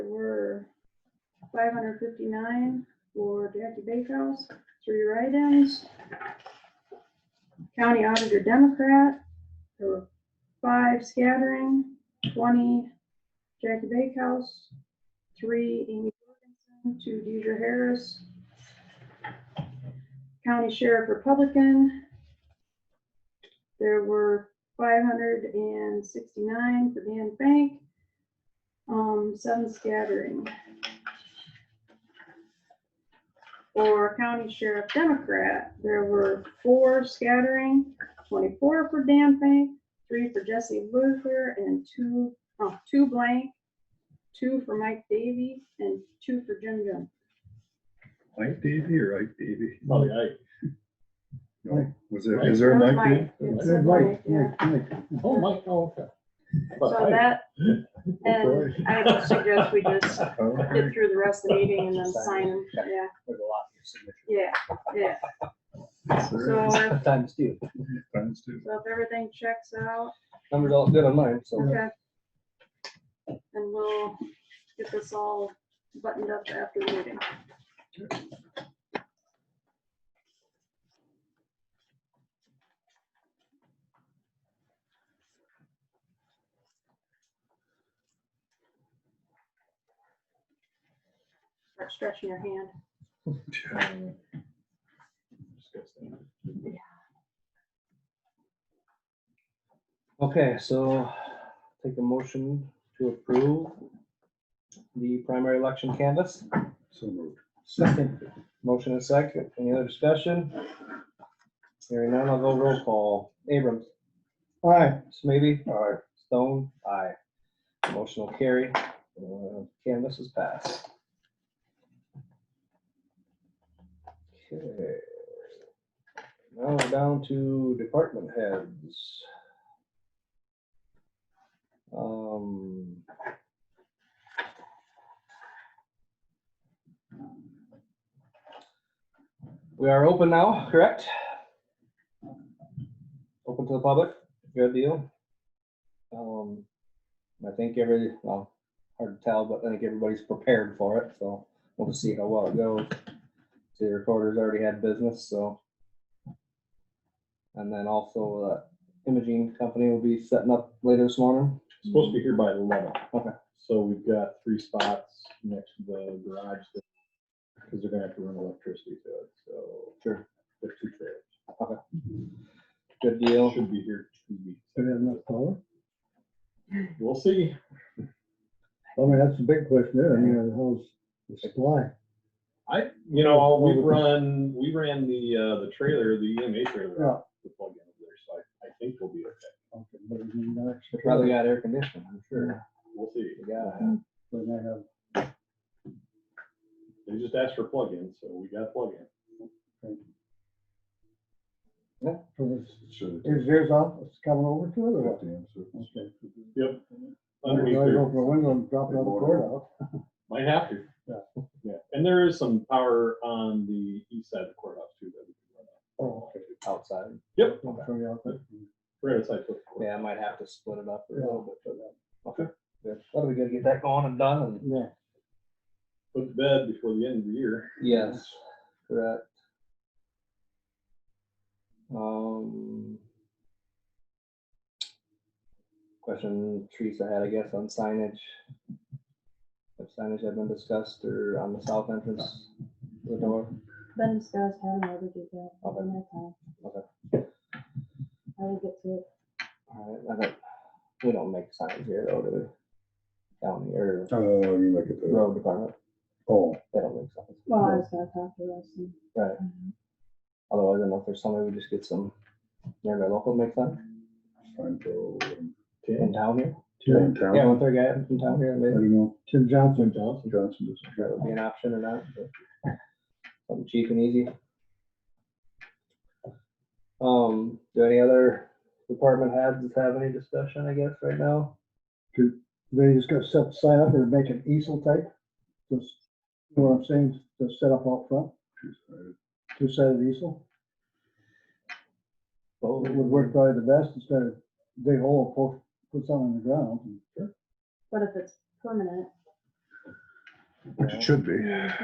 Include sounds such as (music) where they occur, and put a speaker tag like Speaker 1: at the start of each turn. Speaker 1: five hundred fifty-nine for Jackie Bakehouse, three write-ins. County Auditor Democrat, there were five scattering, twenty Jackie Bakehouse, three Amy Jorgensen, two Deidre Harris. County Sheriff Republican, there were five hundred and sixty-nine for Dan Bank, um, seven scattering. For County Sheriff Democrat, there were four scattering, twenty-four for Dan Bank, three for Jesse Luther, and two, oh, two blank, two for Mike Davy, and two for Jim Jones.
Speaker 2: Mike Davy or Ike Davy?
Speaker 3: Oh, yeah.
Speaker 2: No, was there, is there a Mike Davy?
Speaker 1: It said Mike, yeah.
Speaker 3: Oh, Mike, oh, okay.
Speaker 1: So that, and I would suggest we just
Speaker 2: Oh,
Speaker 1: get through the rest of the meeting and then sign, them. yeah,
Speaker 3: There's a lot of your signature.
Speaker 1: yeah, yeah. (laughs) So
Speaker 2: Alright,
Speaker 1: if,
Speaker 3: Times two.
Speaker 2: times two.
Speaker 1: so if everything checks out,
Speaker 3: Numbers all good on mine, so.
Speaker 1: okay. And we'll get this all buttoned up after the meeting. Start stretching your hand.
Speaker 3: Okay, so take a motion to approve the primary election canvas.
Speaker 2: So moved.
Speaker 3: Second. Motion and second. Any other discussion? Hearing none, I'll go roll call. Abrams. Aye. Smithy. Aye. Stone. Aye. Motion will carry. Uh, Canvas is passed. Okay. Now we're down to department heads. Um, We are open now, correct? Open to the public, good deal. Um, I think every, well, hard to tell, but I think everybody's prepared for it, so we'll just see how well it goes. See, the recorder's already had business, so. And then also, uh, imaging company will be setting up later this morning.
Speaker 4: Supposed to be here by eleven.
Speaker 3: Okay.
Speaker 4: So we've got three spots next to the garage, because they're gonna have to run electricity to it, so.
Speaker 3: Sure.
Speaker 4: There's two trailers.
Speaker 3: Good deal.
Speaker 4: Should be here two weeks.
Speaker 5: Do they have enough power?
Speaker 4: We'll see.
Speaker 5: I mean, that's the big question there. I mean, how's the supply?
Speaker 4: I, you know, we run, we ran the, uh, the trailer, the EMA trailer.
Speaker 5: Yeah.
Speaker 4: out The plug-in over there, so I, I think we'll be okay.
Speaker 5: Okay, but I mean, that's-
Speaker 3: Probably got air conditioning, I'm sure.
Speaker 4: We'll see.
Speaker 3: We gotta have-
Speaker 5: But they have-
Speaker 4: They just asked for plug-in, so we got plug-in.
Speaker 5: so it's-
Speaker 2: Sure.
Speaker 5: Is theirs off, it's coming over to it or what? Okay.
Speaker 4: Yep.
Speaker 5: You
Speaker 4: Underneath
Speaker 5: always
Speaker 4: there.
Speaker 5: open the window and drop another cord out.
Speaker 4: Might have to.
Speaker 5: Yeah.
Speaker 4: (laughs) Yeah, and there is some power on the east side of the courthouse too. that we can run out.
Speaker 5: Oh, okay.
Speaker 3: uh, outside.
Speaker 4: Yep.
Speaker 5: Don't throw you out there.
Speaker 4: Right outside. the courthouse.
Speaker 3: Yeah, I might have to split it up a little bit for that.
Speaker 4: Okay.
Speaker 3: Good. That'll be good to get that going and done and.
Speaker 5: Yeah.
Speaker 4: Put to bed before the end of the year.
Speaker 3: Yes, correct. Um. Question Teresa had, I guess, on signage. If signage had been discussed or on the south entrance, of the door,
Speaker 6: Been discussed, haven't already did that,
Speaker 3: Okay.
Speaker 6: in that time.
Speaker 3: Okay.
Speaker 6: I will get to it.
Speaker 3: alright, I don't, we don't make signs here though, do we? County or
Speaker 2: Uh, you look at the,
Speaker 3: road department,
Speaker 2: oh,
Speaker 3: they don't make signs,
Speaker 6: Well, I was gonna talk to Russ and
Speaker 3: right? Otherwise, I don't know if there's somebody, we just get some, nearby local make sign
Speaker 2: time to, um,
Speaker 3: in town here.
Speaker 2: in
Speaker 5: Tim,
Speaker 2: town.
Speaker 3: Yeah, one third guy in town here,
Speaker 2: I
Speaker 3: maybe.
Speaker 2: don't know,
Speaker 5: Tim Johnson.
Speaker 4: St. John's.
Speaker 2: Johnson does.
Speaker 3: sure it would be an option or not. but Something cheap and easy. Um, do any other department heads have any discussion, I guess, right now?
Speaker 5: They just gotta set the sign up or make an easel type. Just, you know what I'm saying? Just set up out front, two-sided easel.
Speaker 3: Oh,
Speaker 5: It would work probably the best instead of dig a hole, poke, put something in the ground.
Speaker 6: What if it's permanent?
Speaker 5: But
Speaker 7: It should be.
Speaker 2: Yeah.